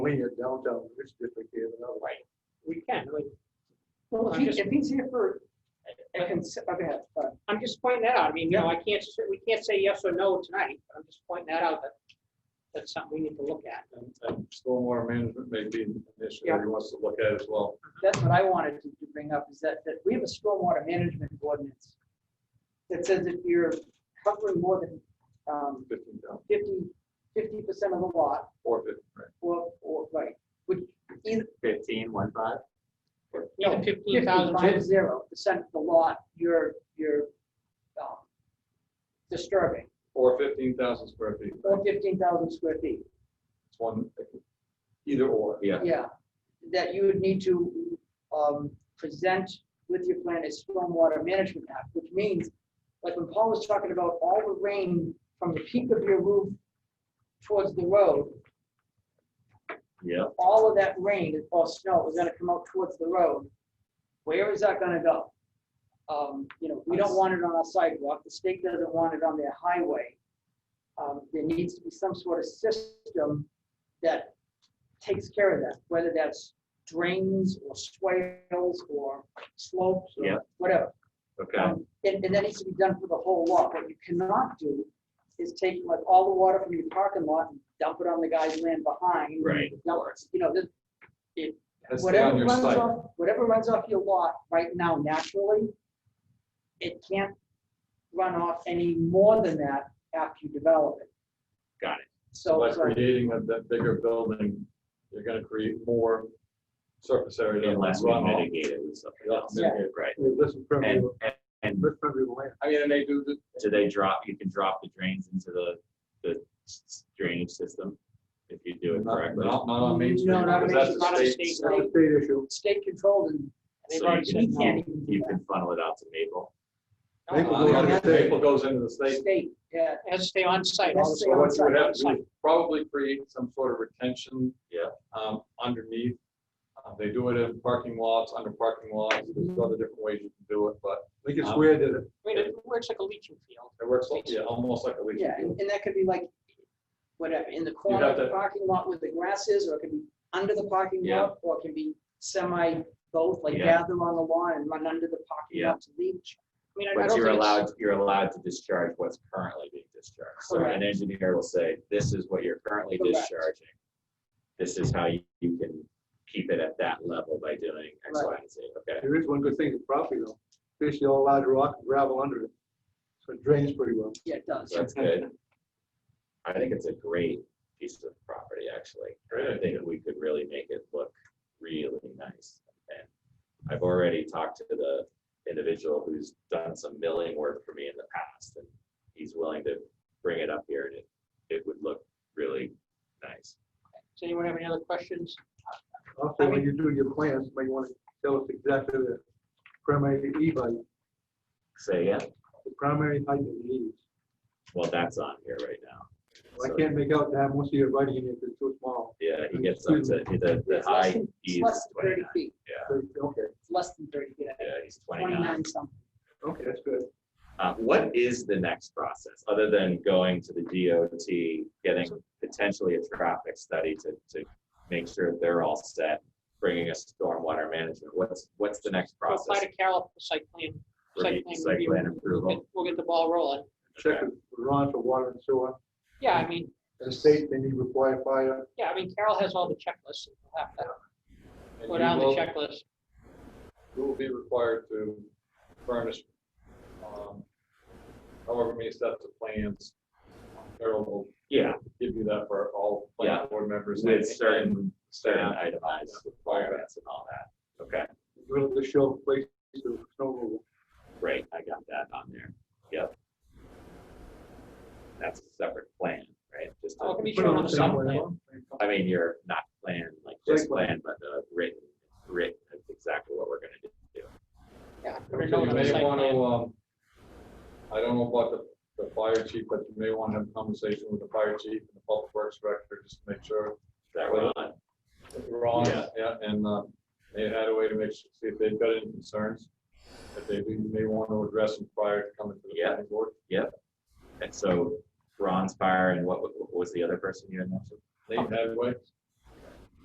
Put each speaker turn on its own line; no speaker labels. we in downtown, which district is another.
Right. We can, I mean,
Well, if
I'm
he,
just-
if he's here for, a
But-
cons- I mean, uh,
I'm just pointing that out. I mean, you know, I can't, s- we can't say yes or no tonight, but I'm just pointing that out that that's something we need to look at.
And and stormwater management may be an issue that he wants to look at as well.
that's what I wanted to to bring up, is that, that we have a stormwater management ordinance that says if you're covering more than um,
Fifteen thousand,
50, 50% of the lot,
four fifty, right?
or, or, right, which either
Fifteen, one five?
No,
Even fifteen
50,
thousand,
five zero percent of the lot, you're, you're um, disturbing,
Or fifteen thousand square feet,
or 15,000 square feet.
it's one, either or.
Yeah.
Yeah, that you would need to um, present with your plan a stormwater management act, which means, like when Paul was talking about all the rain from the peak of your roof towards the road,
Yeah.
all of that rain or snow is gonna come out towards the road. Where is that gonna go? Um, You know, we don't want it on our sidewalk, the state doesn't want it on their highway. Um, There needs to be some sort of system that takes care of that, whether that's drains or swales or slopes
Yeah.
or whatever.
Okay,
Um, And, and that needs to be done for the whole lot. What you cannot do is take like all the water from your parking lot and dump it on the guy's land behind.
Right,
Now, you know, this,
That's down
whatever
your
runs
site.
off, whatever runs off your lot right now naturally, it can't run off any more than that after you develop it.
Got
it.
So
So,
by
it's like-
creating a- that bigger building, you're gonna create more surface area. that
unless
runs
we
off.
mitigate it with something
Yeah,
else,
mitigate.
right?
Hey, Listen,
And,
Premier,
and- and
listen, Premier Land,
I mean, and they do, the-
do they drop, you can drop the drains into the, the s- drainage system if you do it
not,
correctly?
not not on Main Street,
No, not
because
Main
that's
Street,
not on
a state.
State
that's a state issue.
state controlled and
They've
So
already
you
said
you
no.
can't even do
You can funnel it out to Maple.
Maple
Uh,
goes
yeah,
under
that's-
state.
Maple goes into the
that.
state.
State, yeah,
It Has to stay on site.
That's
So
the
what you would
outside,
have to do is probably create some sort of retention.
Yeah.
Um, underneath. Uh, They do it in parking lots, under parking lots, there's other different ways you can do it, but
I think it's
Um,
weird that
I mean, it works like a leaching field.
it works, like- yeah, almost like a leach
yeah,
field.
and and that could be like, whatever, in the corner of
have
the
to-
parking lot where the grass is, or it could be under the parking
Yeah.
lot, or it can be semi both, like
Yeah.
gather on the lawn and run under the parking
Yeah.
lot to leach.
I mean, I- I
But
don't
you're
think it's-
allowed, you're allowed to discharge what's currently being discharged. So
Correct.
an engineer will say, this is what you're currently
Correct.
discharging. This is how you, you can keep it at that level by doing X, Y,
Right.
and Z. Okay,
there is one good thing, it's property though, especially all large rock and gravel under it. So it drains pretty well.
Yeah, it
so
does.
that's good. I think it's a great piece of property, actually. I
Great.
think we could really make it look really nice. And I've already talked to the individual who's done some milling work for me in the past, and he's willing to bring it up here, and it, it would look really nice.
Does anyone have any other questions?
Also, when you do your plans, you may want to tell us exactly the primary e-bike,
So, yeah,
the primary height of the eaves.
well, that's on here right now.
I
So,
can't make out that most of your writing in it, it's too small.
Yeah, he gets up to, the, the
It's less
high
than- it's
E
less
is
than
twenty-nine.
thirty feet,
So, Okay,
it's less than thirty feet, I
Yeah,
think,
he's twenty-nine.
twenty-nine something.
okay, that's good.
Uh, what is the next process, other than going to the DOT, getting potentially a traffic study to, to make sure they're all set, bringing a stormwater management? What's, what's the next
We'll Apply
process?
to Carol for site plan.
Review-
plan
Site
review.
plan
We'll
approval?
get- We'll get the ball rolling.
Check with Ron for water and sewer.
Yeah, I mean,
The state, they need required fire.
yeah, I mean, Carol has all the checklists. We'll have to
And
go
you
down the
will-
checklist.
You will be required to furnish, um, however many sets of plans. Carol will
Yeah,
give you that for all planning board members.
with
and-
certain, certain
Yeah.
itemized requirements and all that. Okay,
Will the show place to snow removal.
great, I got that on there. Yep. That's a separate plan, right? Just a-
Oh, it can be shown on the site plan.
I mean, you're not plan like this
Site plan.
plan, but uh, written, written, that's exactly what we're gonna do.
Yeah.
You
put a note on the
may
site
want
plan.
to, um, I don't know about the, the fire chief, but you may want to have a conversation with the fire chief and the public works director, just to make sure.
That we're on.
that we're on.
Yeah.
Yeah, and, uh, they had a way to make, sure see if they've got any concerns, that they do- may want to address them prior to coming to the
Yeah.
planning board.
And so bronze fire and what, wa- what was the other person you had mentioned?
They had a way,